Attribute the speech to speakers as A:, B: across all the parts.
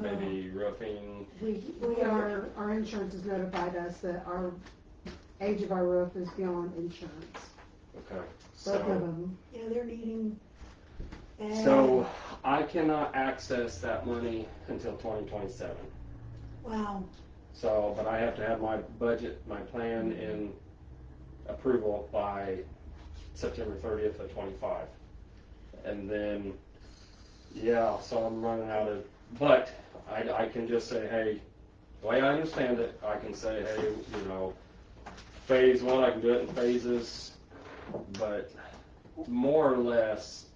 A: maybe roofing.
B: We, we are, our insurance has notified us that our age of our roof is beyond insurance,
A: Okay.
B: both
A: So,
B: of them.
C: Yeah, they're needing. bad-
A: so I cannot access that money until 2027.
C: Wow,
A: So, but I have to have my budget, my plan in approval by September thirtieth of twenty-five. And then, yeah, so I'm running out of, but I, I can just say, hey, the way I understand it, I can say, hey, you know, phase one, I can do it in phases, but more or less,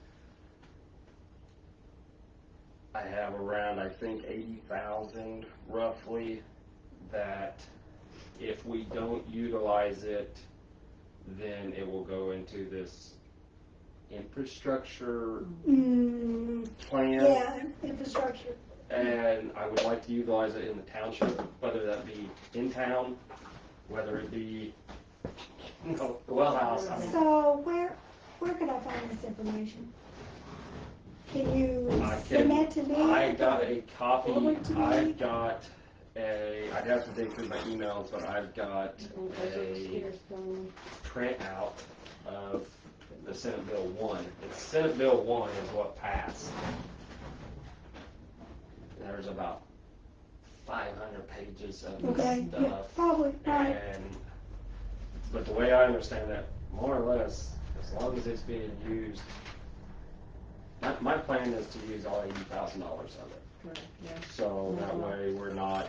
A: I have around, I think, eighty thousand roughly that if we don't utilize it, then it will go into this infrastructure
C: mm,
A: plan.
C: yeah, infrastructure,
A: And I would like to utilize it in the township, whether that be in town, whether it be, you know, the well house. I mean,
C: so where, where could I find this information? Can you
A: I
C: send that to
A: can,
C: me?
A: I got a copy,
C: Forward to me.
A: I've got a, I'd have to dig through my emails, but I've got a printout of the Senate Bill one. It's Senate Bill one is what passed. There's about five hundred pages of this
C: Okay, yeah,
A: stuff.
C: probably, right,
A: And, but the way I understand that, more or less, as long as it's being used, my, my plan is to use all eighty thousand dollars of it. So that way, we're not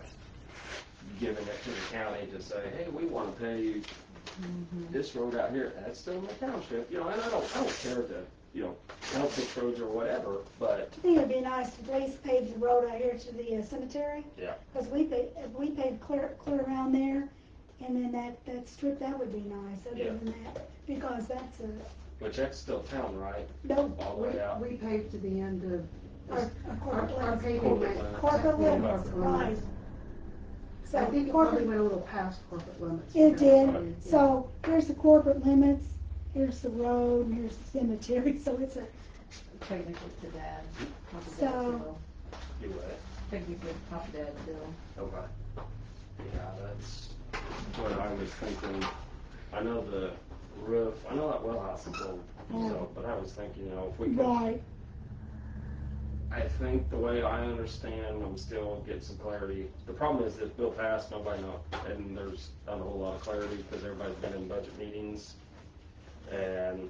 A: giving it to the county to say, hey, we wanna pay you this road out here, that's still in the township, you know, and I don't, I don't care to, you know, count six roads or whatever, but,
C: I think it'd be nice if Lace paved the road out here to the uh, cemetery.
A: Yeah.
C: Cause we pay, if we paved clear, clear around there, and then that, that strip, that would be nice,
A: Yeah.
C: other than that, because that's a,
A: which that's still town, right?
C: no,
A: All the
B: We,
A: way out.
B: we paved to the end of,
C: our, our
B: our,
C: corporate
B: our
C: lands.
B: paving
A: Corporate
B: went,
A: limits.
C: Corporate limits,
A: Corporate
C: right.
A: limits.
B: I
C: So
B: think it probably
C: corporate,
B: went a little past corporate limits.
C: it
B: Yeah.
C: did, so here's the corporate limits, here's the road, and here's the cemetery, so it's a,
D: Technically to dad. not to dad's
C: So-
D: bill.
A: Do it.
D: Technically, pop dad's bill.
A: Okay. Yeah, that's what I was thinking, I know the roof, I know that well house is old, so, but I was thinking, you know, if we could,
C: right,
A: I think the way I understand, I'm still getting some clarity. The problem is this bill passed, nobody know, and there's not a whole lot of clarity, because everybody's been in budget meetings, and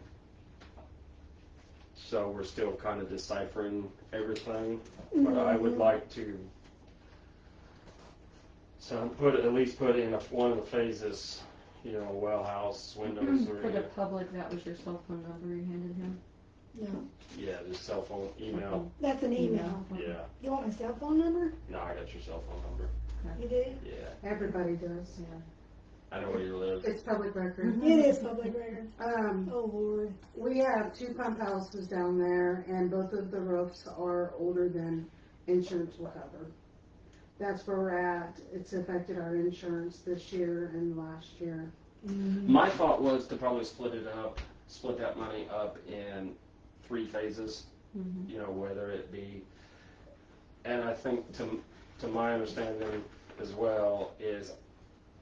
A: so we're still kind of deciphering everything, but I would
C: Mhm.
A: like to, so put, at least put in a- one of the phases, you know, well house, windows,
E: For the
A: or,
E: public, that was your cell phone number you handed him?
C: no,
A: yeah, just cell phone, email,
C: that's an email.
E: Mm-hmm.
A: yeah.
C: You want my cell phone number?
A: No, I got your cell phone number,
C: You do?
A: yeah,
B: Everybody does.
A: I know where you live.
B: It's public record.
E: Mhm.
C: It is public record,
B: Um,
C: oh lord,
B: we have two pump houses down there and both of the roofs are older than insurance will cover. That's where we're at. It's affected our insurance this year and last year.
C: Mm-hmm.
A: My thought was to probably split it up, split that money up in three phases,
E: Mhm.
A: you know, whether it be, and I think to, to my understanding as well is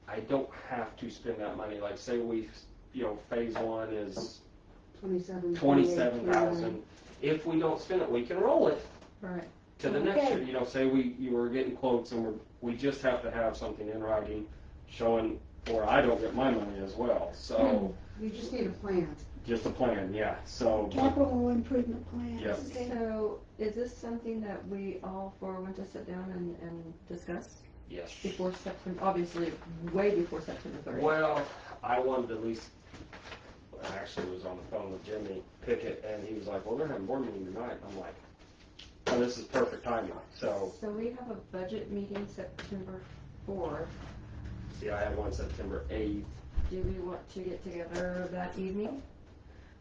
A: I don't have to spend that money. Like say we, you know, phase one is
B: Twenty-seven. 28,
A: twenty-seven
B: 29.
A: thousand. If we don't spend it, we can roll it
E: Right.
A: to the next
C: Okay.
A: year. You know, say we, you were getting quotes and we're, we just have to have something in writing showing or I don't get my money as well. So
B: You just need a plan.
A: just a plan, yeah. So
C: capital improvement plan.
A: Yep.
C: Okay.
E: So is this something that we all four want to sit down and, and discuss
A: Yes.
E: before September, obviously way before September thirtieth?
A: Well, I wanted to at least, I actually was on the phone with Jimmy Pickett, and he was like, well, they're having board meeting tonight. And I'm like, oh, this is perfect timing. So,
E: So we have a budget meeting September fourth.
A: yeah, I have one September 8th.
E: Do we want to get together that evening?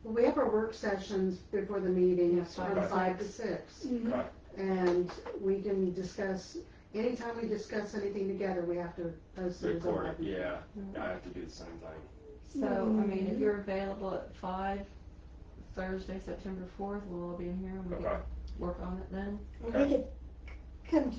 B: Well, we have our work sessions before the meetings
E: Yeah,
B: from
A: to
E: five
B: five to six.
C: Mhm.
A: Right.
B: And we can discuss, anytime we discuss anything together, we have to post it as a
A: Record,
B: web.
A: yeah. I have to do the same thing.
E: So, I mean, if you're available at five, Thursday, September fourth, we'll all be in here and we
A: Okay.
E: can work on it then.
C: Or we could come